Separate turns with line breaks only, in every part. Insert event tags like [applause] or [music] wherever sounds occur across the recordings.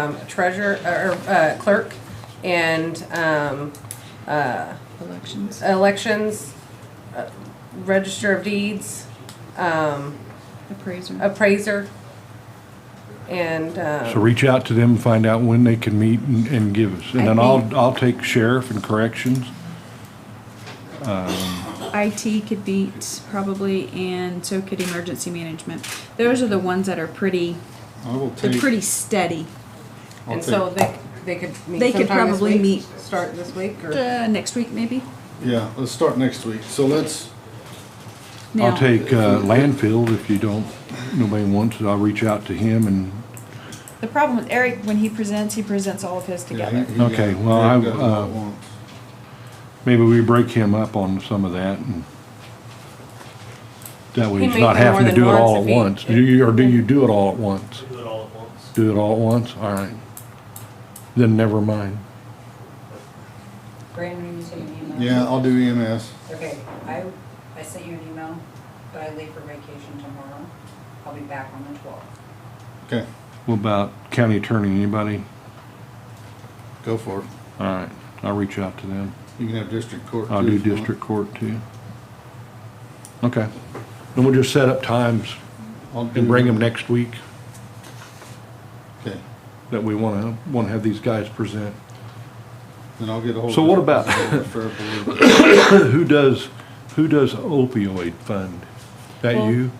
um, treasurer, or uh, clerk, and um, uh,
Elections.
elections, uh, register of deeds, um,
Uh,
Appraiser.
appraiser, and,
So
um,
reach out to them, find out when they can meet and, and give us. And
I
then I'll,
think-
I'll take sheriff and corrections.
IT could beat probably, and so could emergency management. Those are the ones that are pretty,
I will
they're
take,
pretty steady.
I'll
and
take,
so they, they could meet
They could
sometime this
probably
week?
meet.
Start this week, or?
Uh, next week maybe?
yeah, let's start next week. So let's,
Now,
I'll take, uh, landfill if you don't, nobody wants it. I'll reach out to him and,
The problem with Eric, when he presents, he presents all of his
yeah,
together.
he- he, uh,
Okay, well, I,
Greg does what
uh,
he wants.
maybe we break him up on some of that and that way
He
he's
may
not
do
having
more
to do it
than
all
once
at
if he-
once. Do you, or do you do it all at once?
do it all at once.
Do it all at once? All right. Then never mind.
Brandon, you send an email?
Yeah, I'll do E EMS.
Okay, I, I sent you an email, but I leave for vacation tomorrow. I'll be back on the twelfth.
Okay,
What about county attorney? Anybody?
go for it.
All right. I'll reach out to them.
You can have district court.
I'll
too
do
if you want.
district court too. Okay. Then we'll just set up times
I'll
and
do-
bring them next week
Okay,
that we wanna, wanna have these guys present. [coughs]
then I'll get ahold of.
So what about-
Fair Blue.
[laughs] Who does, who does opioid fund? That
Well-
you?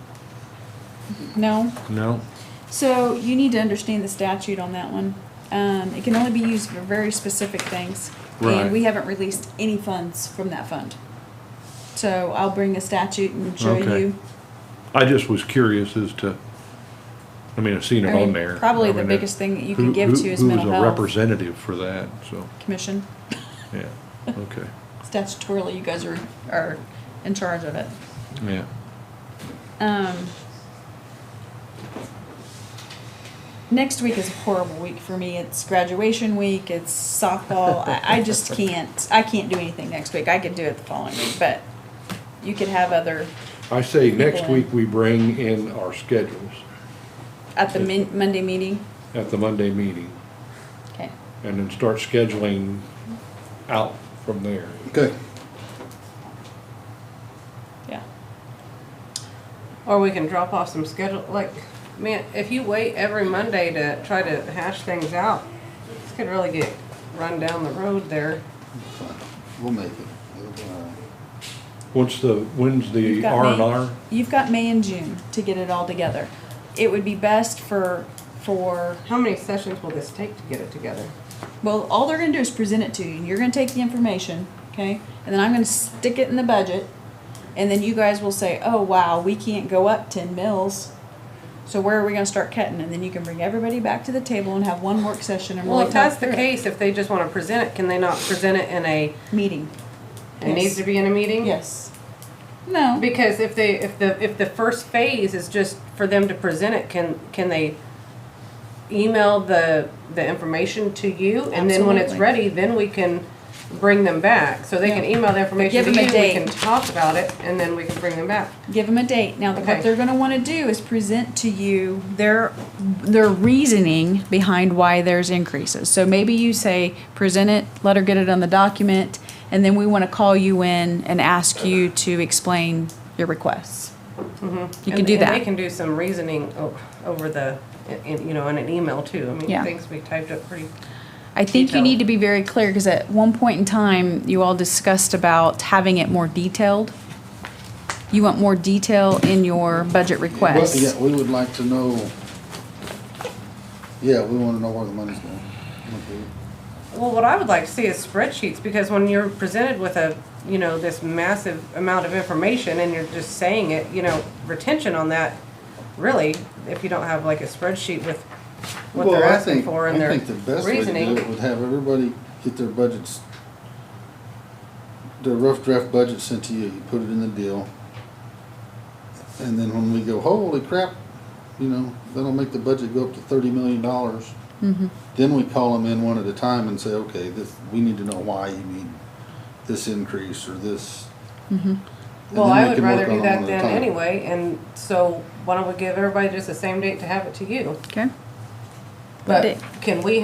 No?
No?
So you need to understand the statute on that one. Um, it can only be used for very specific things.
Right.
And we haven't released any funds from that fund. So I'll bring a statute and show
Okay.
you.
I just was curious as to, I mean, I've seen
I
it on
mean,
there.
Probably
I
the
mean,
biggest thing that you can
who-
give
who-
to is mental
Who was a
health
representative for that, so,
commission. [laughs]
yeah, okay,
Statutorily, you guys are, are in charge of it.
yeah.
Um, next week is a horrible week for me. It's graduation week. It's softball. I, I
[laughs]
just can't. I can't do anything next week. I could do it the following week, but you could have other
I say next
Okay.
week we bring in our schedules
at the min- Monday meeting.
at the Monday meeting.
Okay.
and then start scheduling out from there.
Okay,
Yeah.
Or we can drop off some schedule, like, man, if you wait every Monday to try to hash things out, this could really get run down the road there.
we'll uh, make it. It'll be all right.
What's the, when's
You've
the
got
R and
May-
R?
You've got May and June to get it all together. It would be best for for
How many sessions will this take to get it together?
Well, all they're gonna do is present it to you, and you're gonna take the information, okay? And then I'm gonna stick it in the budget, and then you guys will say, oh, wow, we can't go up ten mils. So where are we gonna start cutting? And then you can bring everybody back to the table and have one work session and
Well,
really
if that's
talk
the
through it.
case, if they just wanna present it, can they not present it in a,
Meeting,
it needs
Yes.
to be in a meeting?
yes. No,
Because if they, if the, if the first phase is just for them to present it, can, can they email the, the information to you? And then when it's
Absolutely.
ready, then we can bring them back. So they can
Yeah.
email the information to
give
you,
them
we
a date.
can talk about it, and then we can bring them back.
give them a date. Now,
Okay.
what they're gonna wanna do is present to you their, their reasoning behind why there's increases. So maybe you say, present it, let her get it on the document, and then we wanna call you in and ask you to explain your requests. You can
Mm-hmm. And-
do
And they
that.
can do some reasoning o- over the, in- in, you know, in an email too. I mean,
Yeah.
things we typed up pretty,
I think you
detail.
need to be very clear, cause at one point in time, you all discussed about having it more detailed. You want more detail in your budget
Well,
requests.
Yeah, we would like to know, yeah, we wanna know where the money's going. Okay.
well, what I would like to see is spreadsheets, because when you're presented with a, you know, this massive amount of information and you're just saying it, you know, retention on that, really, if you don't have like a spreadsheet with what
Well,
they're
I
asking
think
for and
I
their
think the best way to do it
reasoning.
Would have everybody get their budgets, their rough draft budget sent to you, you put it in the deal. And then when we go, holy crap, you know, that'll make the budget go up to thirty million dollars. Then we call them in one at a time and say, okay, this, we need to know why you need this increase or this. And
Well,
then
I
we
would
can work
rather
on
do
it
that
one at a
then
time.
anyway, and so why don't we give everybody just the same date to have it to you?
Okay?
But can we